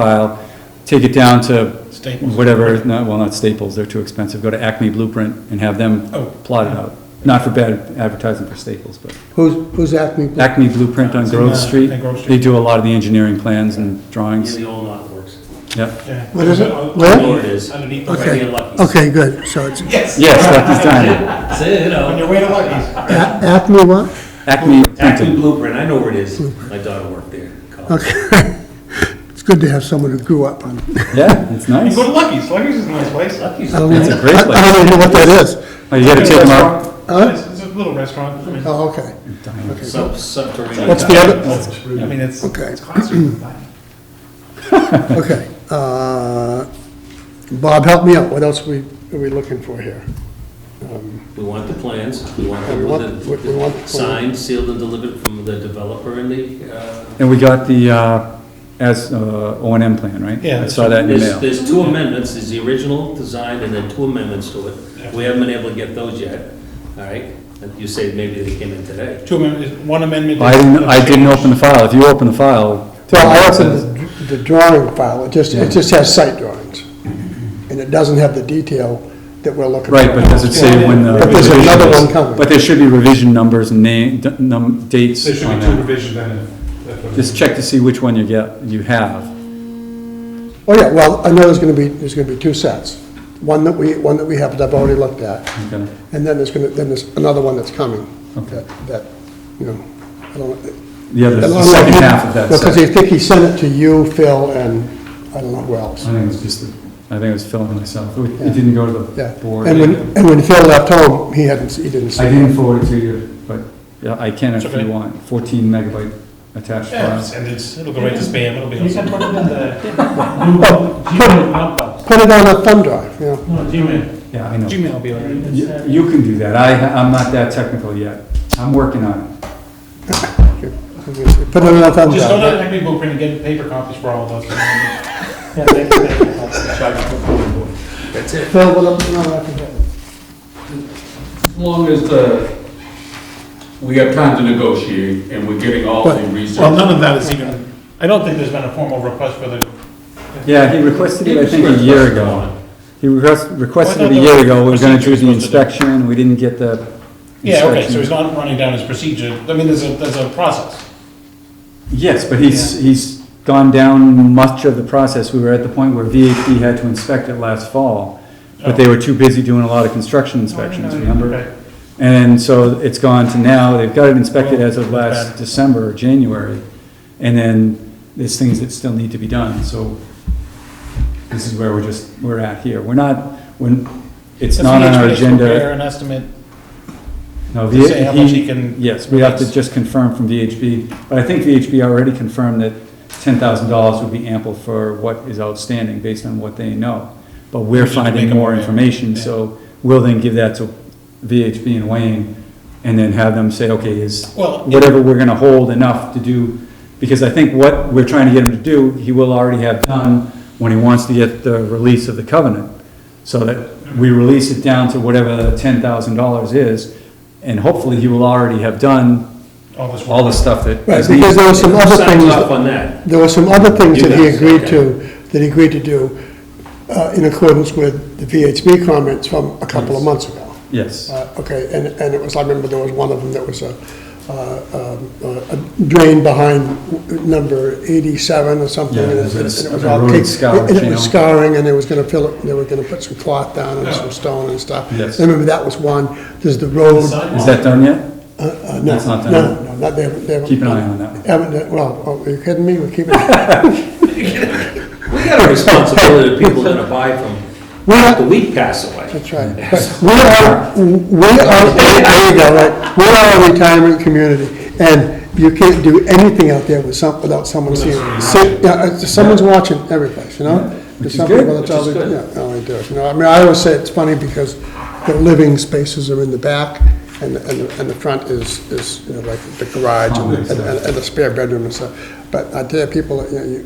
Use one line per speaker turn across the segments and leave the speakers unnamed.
file, take it down to
Staples.
whatever, no, well, not Staples, they're too expensive, go to Acme Blueprint and have them
Oh.
plot it out. Not for bad advertising for Staples, but
Who's, who's Acme?
Acme Blueprint on
It's in, uh,
Grove Street,
on Grove
they do a lot of the engineering plans and
Yeah,
drawings,
the old lot works.
yep.
Yeah.
What is it?
Oh,
Where?
Lord is.
Underneath the
Okay,
Right, we had Lucky's.
okay, good, so it's
Yes.
Yes, Lucky's Diner,
So, you
On
know,
your way to Lucky's.
A- Acme what?
Acme
Acton
Printing,
Blueprint, I know where it is. My daughter worked there. in college.
Okay. It's good to have someone who grew up on. it.
yeah, it's
You
nice.
go to Lucky's. Lucky's is a nice place.
Lucky's.
I don't
It's
know-
a great
I- I don't even know what that is.
Oh, you gotta take them out.
Huh?
It's, it's a little restaurant. I mean,
Oh, okay,
Sub, subterranean.
What's the other-
I mean, it's,
Okay.
it's classy.
okay. Uh, Bob, help me out, what else we, are we looking for here?
We want the plans, we want the-
We want- we- we want the
the
plan.
signed, sealed, and delivered from the developer and the, uh...
And we got the, uh, as, uh, O and M plan, right?
Yeah.
I saw that in the
There's,
mail.
there's two amendments, there's the original design and then two amendments to it. We haven't been able to get those yet, all right? And You say maybe they came in today.
Two amendments, one amendment.
I didn't, I didn't open the file, if you open the file.
Well, I opened the the drawing file, it just, it just has site drawings. And it doesn't have the detail that we're looking for.
Right, but does it say when the
But there's another
revision
one
is?
coming.
But there should be revision numbers and name, d- num, dates
There should
on
be two
that.
revisions then. if- if- if-
Just check to see which one you get, you have.
Oh, yeah, well, I know there's gonna be, there's gonna be two sets. One that we, one that we have, that I've already looked at.
Okay.
And then there's gonna, then there's another one that's coming.
Okay.
that- That, you know, I don't.
The other, the
Well,
second
he-
half of that
Because
set.
I think he sent it to you, Phil, and I don't know who else.
I think it was just, the- I think it was Phil and myself. It it didn't go to
Yeah.
the board.
And when,
I
and when Phil left home, he hadn't, he didn't see
didn't
it.
forward it to you, but yeah, I can if
It's okay.
you want. Fourteen megabyte attached
Yeah,
file.
and it's, it'll go right to spam. It'll be.
You can
awesome.
put it in the Google, Gmail, Outbox.
Put it on a thumb drive, you know.
No, Gmail.
Yeah, I know. You
Gmail will be all right.
you can do that. I, ha- I'm not that technical yet. I'm working on it.
Put it on a thumb
Just go
drive.
to Acme Blueprint and get paper copies for all of us.
Yeah, thank you, thank you. That's-
That's it.
Phil, what else? No, I forget.
As long as the, we have time to negotiate and we're getting all the research.
Well, none of that is even, I don't think there's been a formal request for the,
Yeah, he requested it, I think, a year ago. He request- requested it a
Well, I thought
year
that
ago, we were gonna do
procedure
the
was supposed to do.
inspection, we didn't get the
yeah, okay, so he's
inspection.
not running down his procedure. I mean, there's a, there's a process.
Yes, but he's, he's gone down much of the process, we were at the point where VHB had to inspect it last fall, but
Oh.
they were too busy doing a lot of construction inspections,
Okay.
remember? And so it's gone to now, they've got it inspected as of
Well, that's
last
bad.
December or January, and then there's things that still need to be done, so this is where we're just, we're at here, we're not, when, it's
If
not on our
VHB is to
agenda.
Prepare an estimate
No,
to say how much he
VHB,
can.
yes, we have to
release.
just confirm from VHB, but I think VHB already confirmed that ten thousand dollars would be ample for what is outstanding based on what they know. But we're
Which is to
finding
make a
more
plan,
information,
yeah.
so we'll then give that to VHB and Wayne, and then have them say, okay, is
Well, it-
whatever we're gonna hold enough to do, because I think what we're trying to get him to do, he will already have done when he wants to get the release of the covenant. So that we release it down to whatever the ten thousand dollars is, and hopefully he will already have done
all this work.
all the stuff that
Right,
is needed.
because there were some other
Sign
things.
off on that.
There were some other things
You
that he
guys,
agreed
okay.
to, that he agreed to do uh, in accordance with the VHB comments from a couple of months ago.
Yes,
Uh, Okay, and, and it was, I remember there was one of them that was a, uh, um, a drain behind number 87 or something.
Yeah,
and
there's a-
and it was
a
all
road
caked-
scour
And it
channel.
was scouring, and they was gonna fill it, they were gonna put some cloth down and some stone and stuff.
Yes.
I remember that was one, there's the road.
is that done yet?
uh, uh, no,
That's not done.
No, no, not, they haven't. they haven't-
Keep an eye on that one.
Haven't, done- well, oh, are you kidding me? We're keeping.
We got a responsibility to people that are buy from,
We're not-
the week pass away.
That's right. But We are, we are, there you go, right, we are a retirement community, and you can't do anything out there with some, without someone seeing. it. So- yeah, it's- someone's watching every place, you know? There's
is
some
good,
people that's
which
all
is
they-
good.
Yeah, all they do, you know, I mean, I always say it's funny because the living spaces are in the back, and, the- and, the- and the front is, is, you know, like the garage and, the- and- and the spare bedroom and stuff. But I tell you, people, you know, you,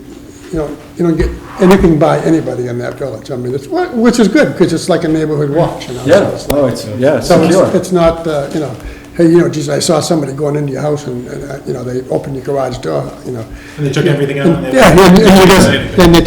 you know, you don't get anything by anybody in that village, I mean, it's, which is good, because it's like a neighborhood watch, you know? so
Yeah,
it's like-
oh, it's, yeah, it's
so
secure.
it's, it's not, uh, you know, hey, you know, geez, I saw somebody going into your house and, and, uh, you know, they opened your garage door, you know.
And they took everything out and they-
Yeah, and, and you just, then they